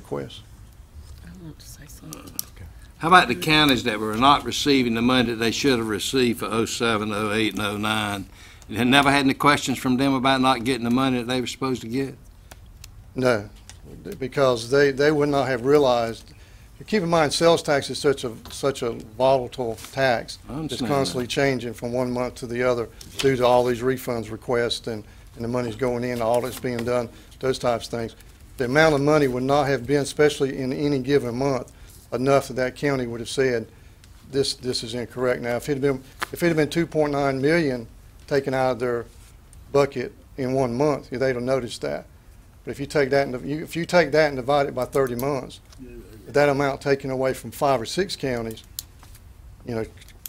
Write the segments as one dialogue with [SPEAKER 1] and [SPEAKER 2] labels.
[SPEAKER 1] request.
[SPEAKER 2] I want to say something.
[SPEAKER 3] How about the counties that were not receiving the money that they should have received for 07, 08, and 09? And had never had any questions from them about not getting the money that they were supposed to get?
[SPEAKER 1] No, because they, they would not have realized, keep in mind, sales tax is such a, such a volatile tax.
[SPEAKER 3] I understand
[SPEAKER 1] It's
[SPEAKER 3] that.
[SPEAKER 1] constantly changing from one month to the other due to all these refunds requests and, and the money's going in, audits being done, those types of things. The amount of money would not have been, especially in any given month, enough that that county would have said, this, this is incorrect. Now, if it had been, if it had been two point nine million taken out of their bucket in one month, they'd have noticed that. But if you take that and, you- if you take that and divide it by thirty months, that amount taken away from five or six counties, you know,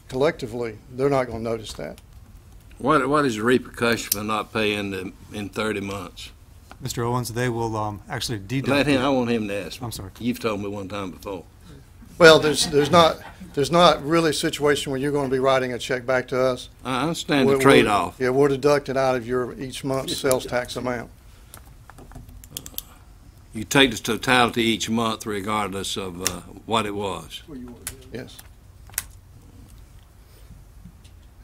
[SPEAKER 1] collectively, they're not gonna notice that.
[SPEAKER 3] What, what is the repercussion for not paying them in 30 months?
[SPEAKER 4] Mr. Owens, they will um, actually deduct.
[SPEAKER 3] Let him,
[SPEAKER 4] it.
[SPEAKER 3] I want him to ask. me.
[SPEAKER 4] I'm sorry.
[SPEAKER 3] You've told me one time before.
[SPEAKER 1] Well, there's, there's not, there's not really a situation where you're gonna be writing a check back to us.
[SPEAKER 3] I understand
[SPEAKER 1] We're-
[SPEAKER 3] the
[SPEAKER 1] we're-
[SPEAKER 3] trade-off.
[SPEAKER 1] Yeah, we're deducted out of your each month's sales tax amount.
[SPEAKER 3] You take the totality each month regardless of uh, what it was.
[SPEAKER 1] Yes.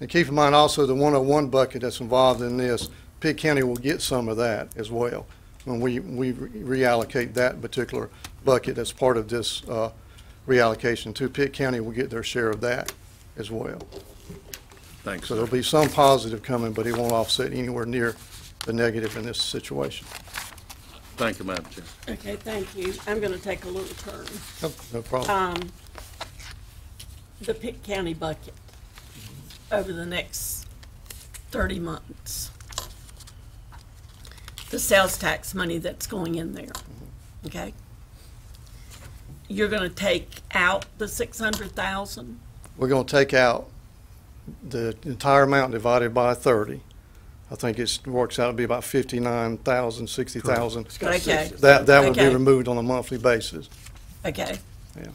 [SPEAKER 1] And keep in mind also the 101 bucket that's involved in this, Pitt County will get some of that as well when we, we reallocate that particular bucket as part of this uh, reallocation too. Pitt County will get their share of that as well.
[SPEAKER 3] Thanks,
[SPEAKER 1] So
[SPEAKER 3] sir.
[SPEAKER 1] there'll be some positive coming, but it won't offset anywhere near the negative in this situation.
[SPEAKER 3] Thank you, Madam Chair.
[SPEAKER 2] Okay, thank you. I'm going to take a little turn.
[SPEAKER 1] No no problem.
[SPEAKER 2] Um, the Pitt County bucket over the next thirty months. The sales tax money that's going in there, okay? You're going to take out the six hundred thousand?
[SPEAKER 1] We're going to take out the entire amount divided by 30. I think it's, works out to be about 59,000, 60,000.
[SPEAKER 2] Okay,
[SPEAKER 1] That, that would be
[SPEAKER 2] Okay.
[SPEAKER 1] removed on a monthly basis.
[SPEAKER 2] okay.
[SPEAKER 1] Yeah.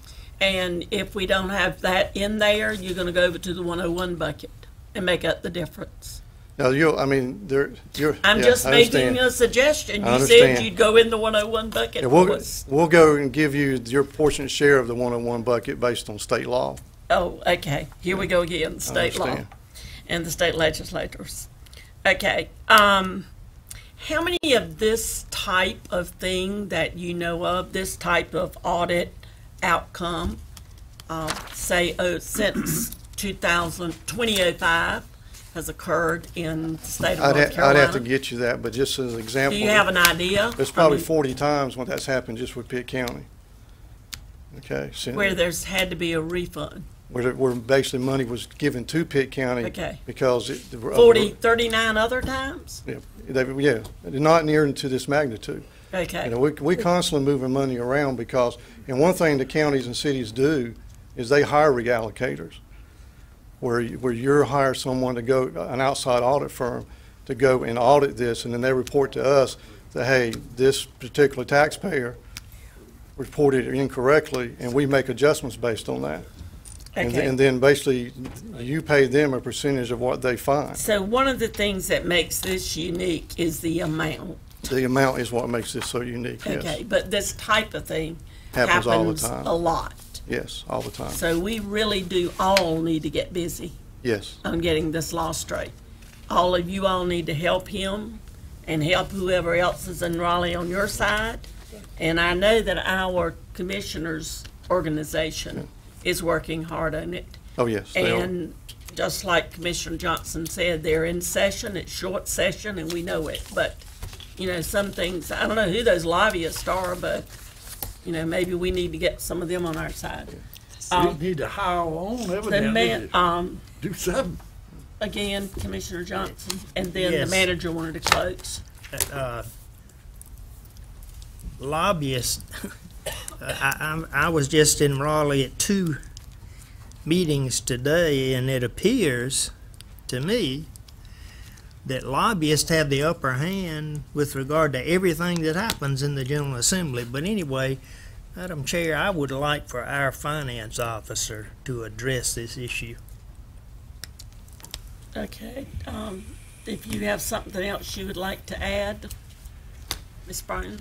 [SPEAKER 2] And if we don't have that in there, you're going to go over to the one oh one bucket and make up the difference.
[SPEAKER 1] Now, you, I mean, there, you're.
[SPEAKER 2] I'm
[SPEAKER 1] yeah,
[SPEAKER 2] just
[SPEAKER 1] I
[SPEAKER 2] making
[SPEAKER 1] understand.
[SPEAKER 2] a suggestion.
[SPEAKER 1] I
[SPEAKER 2] You said
[SPEAKER 1] understand.
[SPEAKER 2] you'd go in the 101 bucket.
[SPEAKER 1] Yeah, We'll,
[SPEAKER 2] Was-
[SPEAKER 1] we'll go and give you your portion share of the one-on-one bucket based on state law.
[SPEAKER 2] Oh, okay. Here we go again, state law
[SPEAKER 1] understand.
[SPEAKER 2] and the state legislators. Okay, um, how many of this type of thing that you know of, this type of audit outcome, uh, say, oh, since 2000, 2005 has occurred in the state of
[SPEAKER 1] I'd,
[SPEAKER 2] North
[SPEAKER 1] ha- I'd have to
[SPEAKER 2] Carolina?
[SPEAKER 1] get you that, but just as an
[SPEAKER 2] Do
[SPEAKER 1] example.
[SPEAKER 2] you have an idea?
[SPEAKER 1] There's
[SPEAKER 2] I
[SPEAKER 1] probably
[SPEAKER 2] mean,
[SPEAKER 1] forty times when that's happened just with Pitt County. Okay, so.
[SPEAKER 2] Where there's had to be a refund.
[SPEAKER 1] Where, the- where basically money was given to Pitt County.
[SPEAKER 2] Okay.
[SPEAKER 1] Because it. the-
[SPEAKER 2] 40, 39 other times?
[SPEAKER 1] Yeah, they, yeah, not near to this magnitude. You know,
[SPEAKER 2] Okay,
[SPEAKER 1] we, we constantly moving money around because, and one thing the counties and cities do is they hire reallocators. Where, you- where you're hire someone to go, an outside audit firm to go and audit this and then they report to us that, hey, this particular taxpayer reported it incorrectly and we make adjustments based on that. And th-
[SPEAKER 2] okay.
[SPEAKER 1] And then basically you pay them a percentage of what they find.
[SPEAKER 2] So one of the things that makes this unique is the amount.
[SPEAKER 1] The amount is what makes this so unique,
[SPEAKER 2] Okay,
[SPEAKER 1] yes.
[SPEAKER 2] but this type of thing
[SPEAKER 1] Happens all the
[SPEAKER 2] happens
[SPEAKER 1] time.
[SPEAKER 2] a lot.
[SPEAKER 1] Yes, all the time,
[SPEAKER 2] So we really do all need to get busy
[SPEAKER 1] yes.
[SPEAKER 2] on getting this law straight. All of you all need to help him and help whoever else is in Raleigh on your side. And I know that our commissioners' organization is working hard on it.
[SPEAKER 1] Oh, yes. they are.
[SPEAKER 2] And just like Commissioner Johnson said, they're in session, it's short session, and we know it. But, you know, some things, I don't know who those lobbyists are, but, you know, maybe we need to get some of them on our side.
[SPEAKER 5] We need to hire our own
[SPEAKER 2] The
[SPEAKER 5] evidently
[SPEAKER 2] man,
[SPEAKER 5] to
[SPEAKER 2] um,
[SPEAKER 5] do something.
[SPEAKER 2] again, Commissioner Johnson, and then the
[SPEAKER 6] Yes.
[SPEAKER 2] manager wanted to close.
[SPEAKER 6] uh, lobbyists. I, I'm, I was just in Raleigh at two meetings today, and it appears to me that lobbyists have the upper hand with regard to everything that happens in the General Assembly. But anyway, Madam Chair, I would like for our finance officer to address this issue.
[SPEAKER 2] Okay, um, if you have something else you would like to add, Ms. Brown?